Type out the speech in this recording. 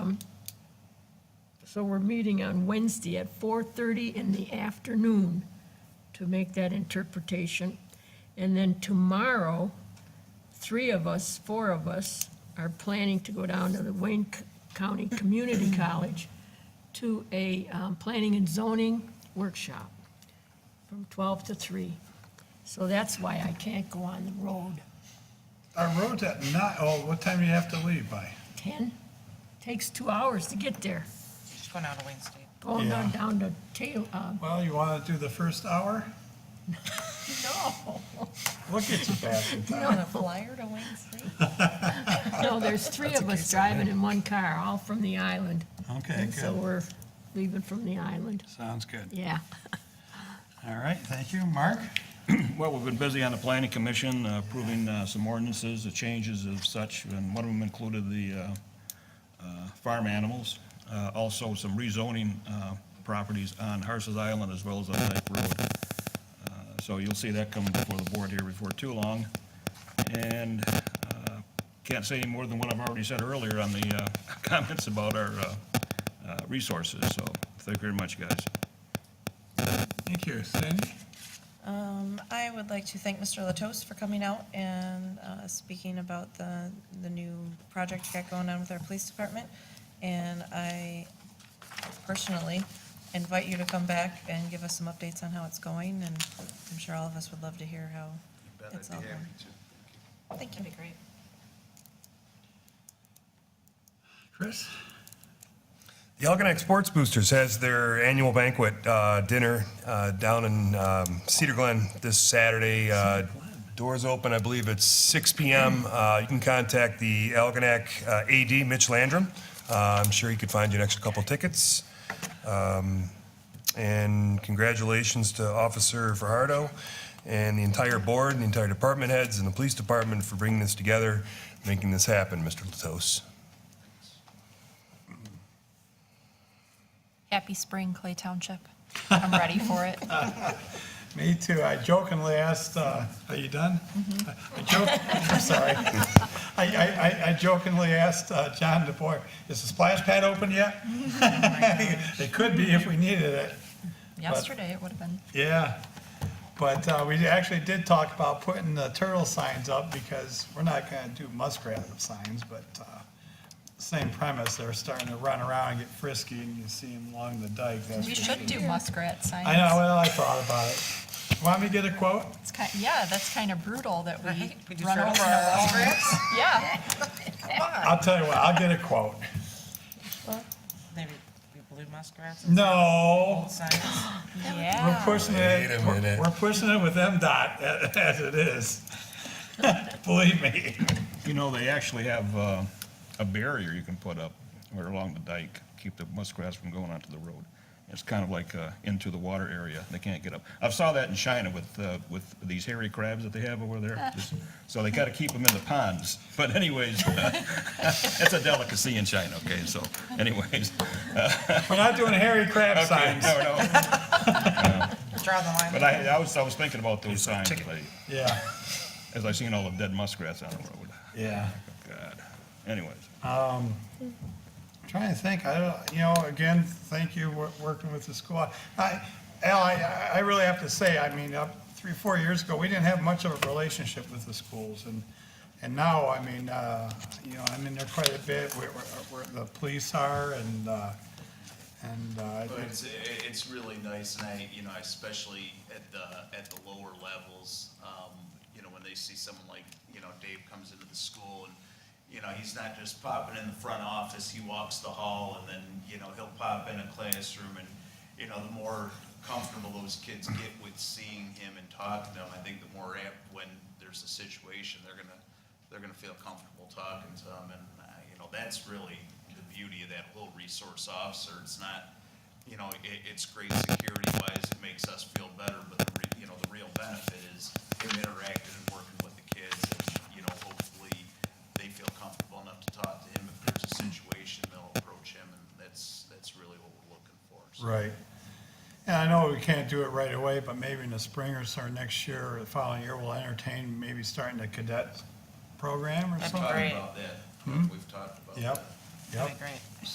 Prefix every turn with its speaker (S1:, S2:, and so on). S1: So we're meeting on Wednesday at 4:30 in the afternoon to make that interpretation. And then tomorrow, three of us, four of us, are planning to go down to the Wayne C- County Community College to a um, planning and zoning workshop from 12 to 3. So that's why I can't go on the road.
S2: Our road's at nine, oh, what time do you have to leave by?
S1: 10, takes two hours to get there,
S3: She's going out to Wayne State.
S1: going down
S2: Yeah.
S1: down to tail, uh,
S2: Well, you want to do the first hour?
S1: no.
S2: Look at you, bastard.
S3: On a flyer to Wayne State?
S1: No, there's three of us driving in one car, all from the island.
S2: Okay,
S1: And so
S2: good.
S1: we're leaving from the island,
S2: Sounds good.
S1: yeah.
S2: All right, thank you. Mark?
S4: Well, we've been busy on the planning commission, uh, approving uh, some ordinances, the changes of such, and one of them included the uh, uh, farm animals, uh, also some rezoning uh, properties on Harses Island as well as on Lake Road. Uh, So you'll see that coming before the board here before too long. And uh, can't say any more than what I've already said earlier on the uh, comments about our uh, uh, resources, so thank you very much, guys.
S2: Thank you. Sandy?
S3: Um, I would like to thank Mr. Latos for coming out and, uh, speaking about the, the new project we got going on with our police department. And I personally invite you to come back and give us some updates on how it's going, and I'm sure all of us would love to hear how it's all going. I think it'd be great.
S2: Chris?
S5: The Algonac Sports Boosters has their annual banquet uh, dinner uh, down in um, Cedar Glen this Saturday. Uh, Doors open, I believe, at 6 p.m. Uh, you can contact the Algonac uh, AD, Mitch Landrum. Uh, I'm sure he could find you an extra couple tickets. Um, And congratulations to Officer Fajardo and the entire board, and the entire department heads, and the police department for bringing this together, making this happen, Mr. Latos.
S6: Happy spring, Clay Township. I'm ready for it.
S2: Me too. I jokingly asked, uh, Mm-hmm. are you done? I joke, I'm sorry. I- I, I, I jokingly asked uh, John DeBoer, is the splash pad open yet? It could be if we needed it.
S6: Yesterday, it would have been.
S2: Yeah, but uh, we actually did talk about putting the turtle signs up because we're not gonna do muskrat signs, but uh, same premise, they're starting to run around and get frisky and you see them along the dike. that's
S6: We
S2: for
S6: should
S2: sure.
S6: do muskrat signs.
S2: I know, well, I thought about it. Want me to get a quote?
S6: It's kind, yeah, that's kind of brutal that
S3: Right, we
S6: we
S3: just
S6: run
S3: started
S6: over
S3: with
S6: our own. Yeah, Uh,
S2: I'll tell you what, I'll get a quote.
S3: Maybe blue muskrats
S2: No,
S3: signs.
S2: we're
S6: yeah.
S2: pushing
S5: Wait
S2: it,
S5: a
S2: we're
S5: minute.
S2: we're pushing it with MDOT a- as it is. Believe me.
S4: You know, they actually have uh, a barrier you can put up or along the dike, keep the muskrats from going onto the road. It's kind of like uh, into the water area, they can't get up. I saw that in China with, uh, with these hairy crabs that they have over there. Just- So they got to keep them in the ponds. But anyways, it's a delicacy in China, okay, so anyways.
S2: We're not doing hairy crab
S4: Okay,
S2: signs.
S4: no, no,
S3: Draw the line.
S4: but I, I was, I was thinking about those signs, like,
S2: Yeah,
S4: as I seen all the dead muskrats on the road.
S2: yeah.
S4: God, anyways.
S2: Trying to think, I don't, you know, again, thank you, wor- working with the school. I, Al, I, I really have to say, I mean, up three, four years ago, we didn't have much of a relationship with the schools, and, and now, I mean, uh, you know, I'm in there quite a bit, where, where, where the police are, and, uh, and, uh, I
S7: But
S2: think-
S7: it's, i- it's really nice, and I, you know, especially at the, at the lower levels, um, you know, when they see someone like, you know, Dave comes into the school and, you know, he's not just popping in the front office, he walks the hall and then, you know, he'll pop in a classroom and, you know, the more comfortable those kids get with seeing him and talking to him, I think the more apt when there's a situation, they're gonna, they're gonna feel comfortable talking to him, and, uh, you know, that's really the beauty of that whole resource officer, it's not, you know, it, it's great security wise, it makes us feel better, but the, re- you know, the real benefit is him interacting and working with the kids, and, you know, hopefully they feel comfortable enough to talk to him, if there's a situation, they'll approach him, and that's, that's really what we're looking for, so.
S2: Right. And I know we can't do it right away, but maybe in the spring or so, next year, or the following year, we'll entertain maybe starting a cadet program or
S3: That'd be
S2: something.
S3: great.
S7: Talked about that, we've talked about that.
S2: Yep, yep.
S3: That'd be great.